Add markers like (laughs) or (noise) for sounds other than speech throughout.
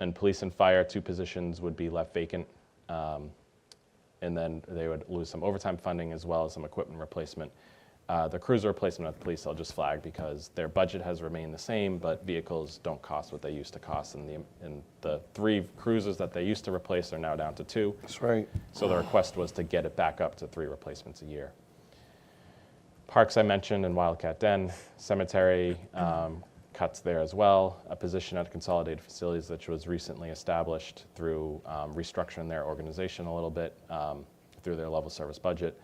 And police and fire, two positions would be left vacant. Um, And then they would lose some overtime funding as well as some equipment replacement. Uh, The cruiser replacement at the police, I'll just flag because their budget has remained the same, but vehicles don't cost what they used to cost. And the, and the three cruisers that they used to replace are now down to two. That's right. So the request was to get it back up to three replacements a year. Parks I mentioned and Wildcat Den, cemetery um, cuts there as well. A position at Consolidated Facilities, which was recently established through um, restructuring their organization a little bit um, through their level service budget.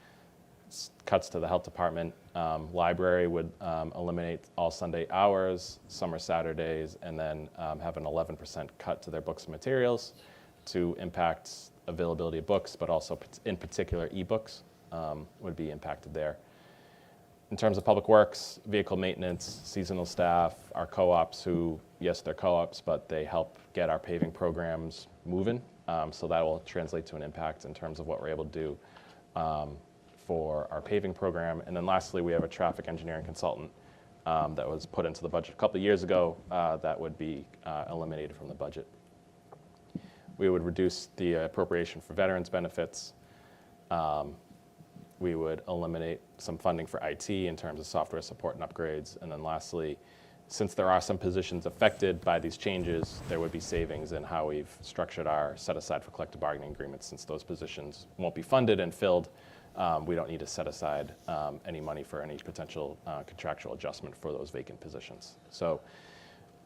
S- Cuts to the health department. Um, library would um, eliminate all Sunday hours, summer Saturdays, and then um, have an 11% cut to their books and materials to impact availability of books, but also pat- in particular ebooks um, would be impacted there. In terms of public works, vehicle maintenance, seasonal staff, our co-ops who, yes, they're co-ops, but they help get our paving programs moving. Um, so that will translate to an impact in terms of what we're able to do um, for our paving program. And then lastly, we have a traffic engineering consultant um, that was put into the budget a couple of years ago uh, that would be uh, eliminated from the budget. We would reduce the appropriation for veterans benefits. Um, We would eliminate some funding for IT in terms of software support and upgrades. And then lastly, since there are some positions affected by these changes, there would be savings in how we've structured our set aside for collective bargaining agreements. Since those positions won't be funded and filled, um, we don't need to set aside um, any money for any potential uh, contractual adjustment for those vacant positions. So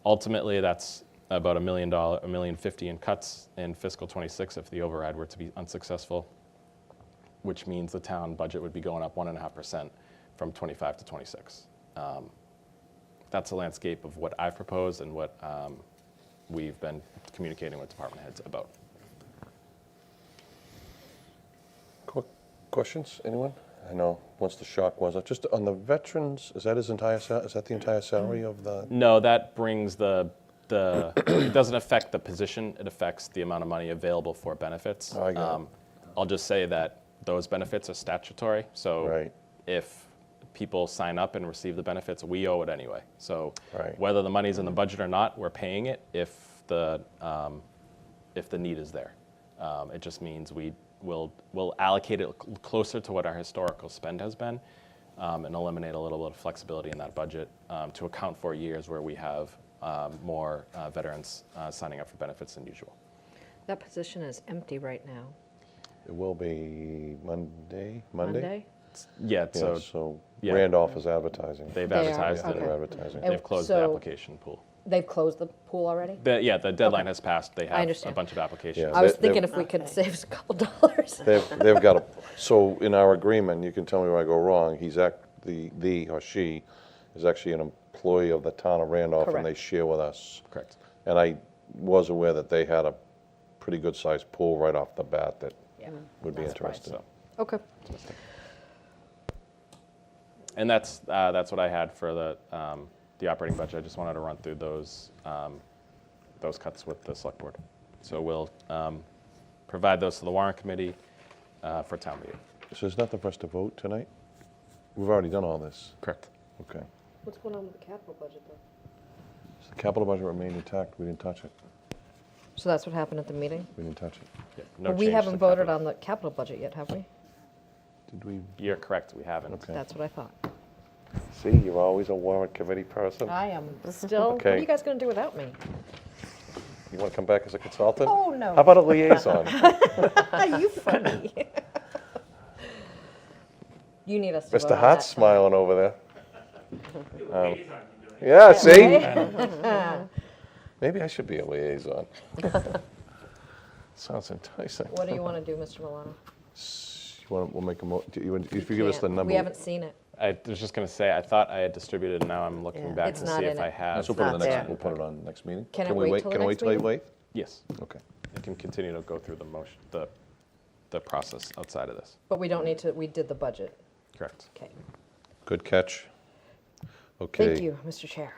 ultimately, that's about a million dollar, a million fifty in cuts in fiscal '26 if the override were to be unsuccessful, which means the town budget would be going up one and a half percent from '25 to '26. That's a landscape of what I've proposed and what um, we've been communicating with department heads about. Qu- Questions, anyone? I know, once the shock was, uh, just on the veterans, is that his entire, sal- is that the entire salary of the? No, that brings the, the, it doesn't affect the position, it affects the amount of money available for benefits. Oh, I got it. Um, I'll just say that those benefits are statutory, so Right. if people sign up and receive the benefits, we owe it anyway. So Right. whether the money's in the budget or not, we're paying it if the, um, if the need is there. Um, It just means we will, will allocate it cl- closer to what our historical spend has been um, and eliminate a little bit of flexibility in that budget um, to account for years where we have um, more uh, veterans uh, signing up for benefits than usual. That position is empty right now. It will be Monday, Monday? Monday? Yeah, Yeah, so so yeah. Randolph is advertising. they've They are, advertised Yeah, and They're Okay. advertising. they've closed the So- application pool. They've closed the pool already? The- Yeah, the deadline has passed. They have a understand. bunch of applications. Yeah. I was they- they- thinking if we could save us a couple (laughs) dollars. They've, they've got a, so in our agreement, you can tell me where I go wrong, he's act, the, the or she is actually an employee of the town of Randolph and they Correct. share with us. Correct. And I was aware that they had a pretty good-sized pool right off the bat that Yeah. would be Not surprised. interested. Okay. And that's, uh, that's what I had for the, um, the operating budget. I just wanted to run through those, um, those cuts with the select board. So we'll, um, provide those to the warrant committee, uh, for town meeting. So there's nothing for us to vote tonight? We've already done all this. Correct. Okay. What's going on with the capital budget, though? So the capital budget remained intact. We didn't touch it. So that's what happened at the meeting? We didn't touch it. Yeah, no But we change to haven't voted capital. on the capital budget yet, have we? Did we? You're correct, we haven't. Okay. That's what I thought. See, you're always a warrant committee person. I (laughs) am still, what are Okay. you guys going to do without me? You want to come back as a consultant? Oh, no. How about a (laughs) liaison? Are (laughs) you funny? You need us to vote Mr. on Hart's that. smiling over (laughs) there. Um, Yeah, see? (laughs) Maybe I should be a (laughs) liaison. Sounds enticing. What do you want to do, Mr. Milano? You want, we'll make a mo, do you want- if you give us the Can't- number. We haven't seen it. I was just gonna say, I thought I had distributed, now I'm looking Yeah. back It's to not see if in I it. have. Let's put it on the It's next, not we'll put it on next meeting. Can it we wait till the Can we wait next till you wait? meeting? Yes, Okay. I can continue to go through the motion, the, the process outside of this. But we don't need to, we did the budget. Correct. Okay. Good catch. Okay. Thank you, Mr. Chair.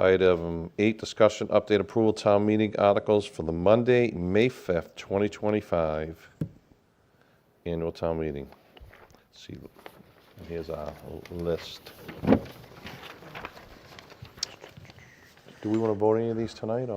Item eight, discussion, update approval, town meeting articles for the Monday, May 5th, 2025 annual town meeting. See, and here's our list. Do we want to vote any of these tonight, or?